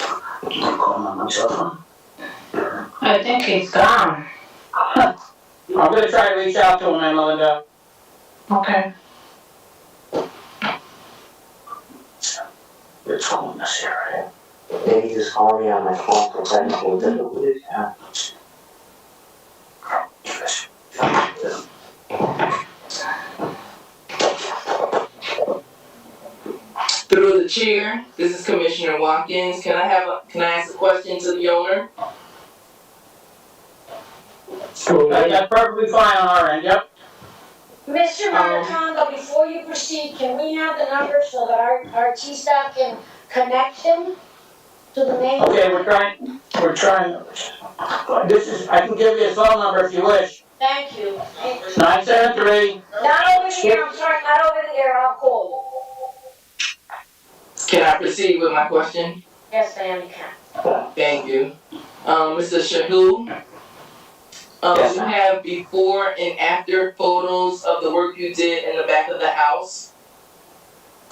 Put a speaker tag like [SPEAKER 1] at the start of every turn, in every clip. [SPEAKER 1] I'll call him on my cell phone.
[SPEAKER 2] I think he's gone.
[SPEAKER 1] I'm gonna try to reach out to him, and Melinda.
[SPEAKER 2] Okay.
[SPEAKER 1] It's calling us here, right?
[SPEAKER 3] Maybe just call me on my phone for seventeen to the week, huh?
[SPEAKER 1] Yes.
[SPEAKER 4] Through the chair, this is Commissioner Watkins. Can I have, a can I ask a question to the owner?
[SPEAKER 1] Uh, That's perfectly fine on our end, yep.
[SPEAKER 5] Mr.
[SPEAKER 4] Um,
[SPEAKER 5] Maritondo, before you proceed, can we have the numbers so that our, our T staff can connect them to the main?
[SPEAKER 1] Okay, we're trying, we're trying. This is, I can give you his phone number if you wish.
[SPEAKER 5] Thank you.
[SPEAKER 1] Nine seven three,
[SPEAKER 5] Not over here, I'm sorry, not over there, I'll call.
[SPEAKER 4] Can I proceed with my question?
[SPEAKER 5] Yes, ma'am, you can.
[SPEAKER 4] Thank you. Um, Mr. Shahul? Um,
[SPEAKER 3] Yes,
[SPEAKER 4] you
[SPEAKER 3] ma'am.
[SPEAKER 4] have before and after photos of the work you did in the back of the house?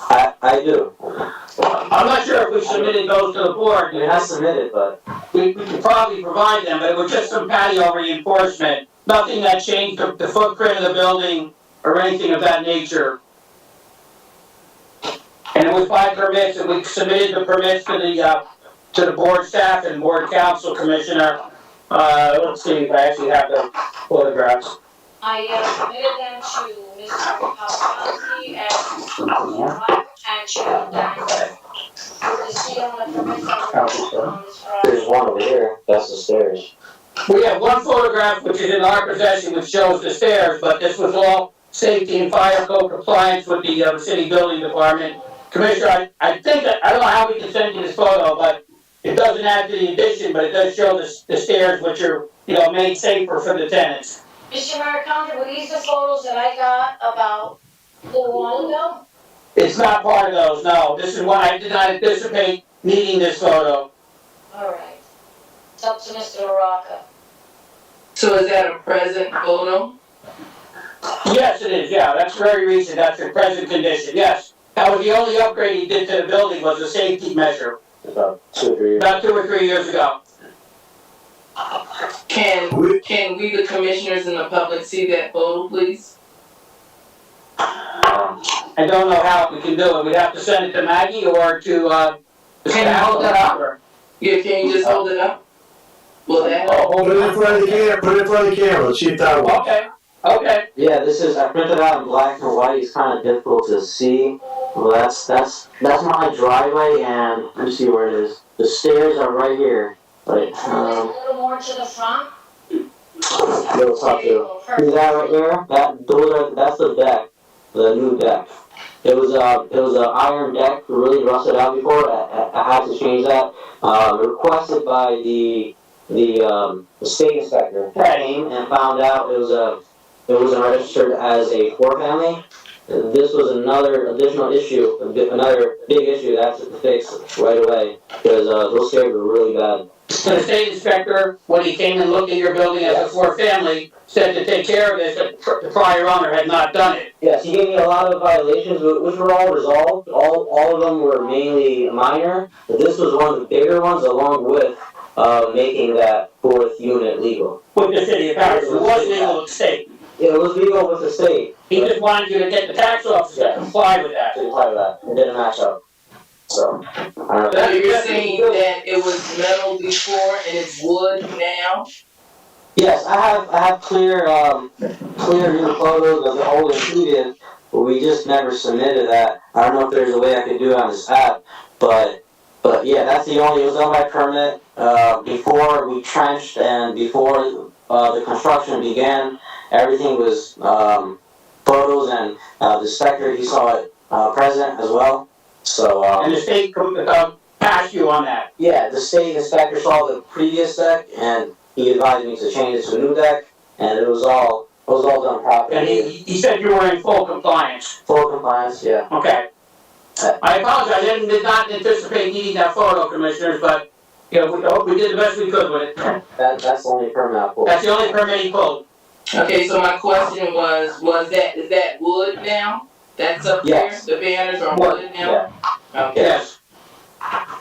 [SPEAKER 3] I, I do.
[SPEAKER 1] I'm not sure if we submitted those to the board.
[SPEAKER 3] I mean, I submitted, but
[SPEAKER 1] We, we could probably provide them, but it was just some patio reinforcement. Nothing that changed the, the footprint of the building or anything of that nature. And it was by permits, and we submitted the permits to the, uh, to the board staff and board council commissioner. Uh, let's see if I actually have the photographs.
[SPEAKER 6] I uh, submitted them to Mr. Paparazzi and and to Dan.
[SPEAKER 5] Good to see you on the permit.
[SPEAKER 6] on this project.
[SPEAKER 3] there's one over here, that's the stairs.
[SPEAKER 1] We have one photograph which is in our possession which shows the stairs, but this was all safety and fire code compliance with the, uh, city building department. Commissioner, I, I think that, I don't know how we can send you this photo, but it doesn't add to the addition, but it does show the, the stairs which are, you know, made safer for the tenants.
[SPEAKER 5] Mr. Maritondo, were these the photos that I got about the while ago?
[SPEAKER 1] It's not part of those, no. This is why I did not anticipate needing this photo.
[SPEAKER 5] All right. It's up to Mr. LaRocca.
[SPEAKER 4] So is that a present photo?
[SPEAKER 1] Yes, it is, yeah, that's very recent, that's in present condition, yes. That was the only upgrade he did to the building was a safety measure,
[SPEAKER 3] About two or three years.
[SPEAKER 1] about two or three years ago.
[SPEAKER 4] Can, can we, the commissioners and the public, see that photo, please?
[SPEAKER 3] Um,
[SPEAKER 1] I don't know how we can do it, we'd have to send it to Maggie or to, uh. the
[SPEAKER 4] Can you hold that
[SPEAKER 1] staff.
[SPEAKER 4] Yeah, can you just hold it up? Will that help?
[SPEAKER 1] Oh, hold
[SPEAKER 7] Put it in
[SPEAKER 1] it
[SPEAKER 7] front of the camera, put it in front of the camera, see if that works.
[SPEAKER 1] up. Okay, okay,
[SPEAKER 3] Yeah, this is, I printed out in black and white, it's kinda difficult to see. Well, that's, that's, that's my driveway and, let me see where it is. The stairs are right here, but,
[SPEAKER 5] A
[SPEAKER 3] um,
[SPEAKER 5] little more to the front.
[SPEAKER 3] little top
[SPEAKER 5] There you
[SPEAKER 3] two.
[SPEAKER 5] go,
[SPEAKER 3] See
[SPEAKER 5] perfect.
[SPEAKER 3] that right there? That those are that's the deck, the new deck. It was a it was a iron deck, really rusted out before. I, I, I had to change that. Uh, requested by the the um, the state inspector
[SPEAKER 1] Right.
[SPEAKER 3] came and found out it was a it was registered as a four family. This was another additional issue, a bi- another big issue that I had to fix right away because uh, those stairs were really bad.
[SPEAKER 1] so the state inspector, when he came and looked at your building as a
[SPEAKER 3] Yes.
[SPEAKER 1] four family, said to take care of this, but pr- the prior owner had not done it.
[SPEAKER 3] Yes, he gave me a lot of violations, wh- which were all resolved. All, all of them were mainly minor, but this was one of the bigger ones, along with uh, making that fourth unit legal.
[SPEAKER 1] With the city of Paris, it was legal to state,
[SPEAKER 3] It was legal with the state.
[SPEAKER 1] he just wanted you to get the tax officer to comply with that.
[SPEAKER 3] To apply that, it didn't match up. So, I don't know.
[SPEAKER 4] So you're saying that it was metal before and it's wood now?
[SPEAKER 3] Yes, I have I have clear um, clear new photos of the old and previous, but we just never submitted that. I don't know if there's a way I could do it on this app, but but yeah, that's the only. It was on my permit uh, before we trenched and before uh, the construction began. Everything was um, photos and uh, the inspector he saw it uh, present as well. So um,
[SPEAKER 1] And the state, com- uh, passed you on that.
[SPEAKER 3] yeah, the state inspector saw the previous deck and he advised me to change it to a new deck and it was all, it was all done
[SPEAKER 1] And he,
[SPEAKER 3] properly.
[SPEAKER 1] he said you were in full compliance.
[SPEAKER 3] Full compliance, yeah.
[SPEAKER 1] Okay. I apologize, I didn't, did not anticipate needing that photo, commissioners, but, you know, we, hope we did the best we could with it.
[SPEAKER 3] That, that's the only permit I pulled.
[SPEAKER 1] That's the only permit he pulled.
[SPEAKER 4] Okay, so my question was, was that, is that wood now? That's up there?
[SPEAKER 3] Yes.
[SPEAKER 4] The banners are
[SPEAKER 3] Wood,
[SPEAKER 4] wood now? Okay.
[SPEAKER 1] Yes.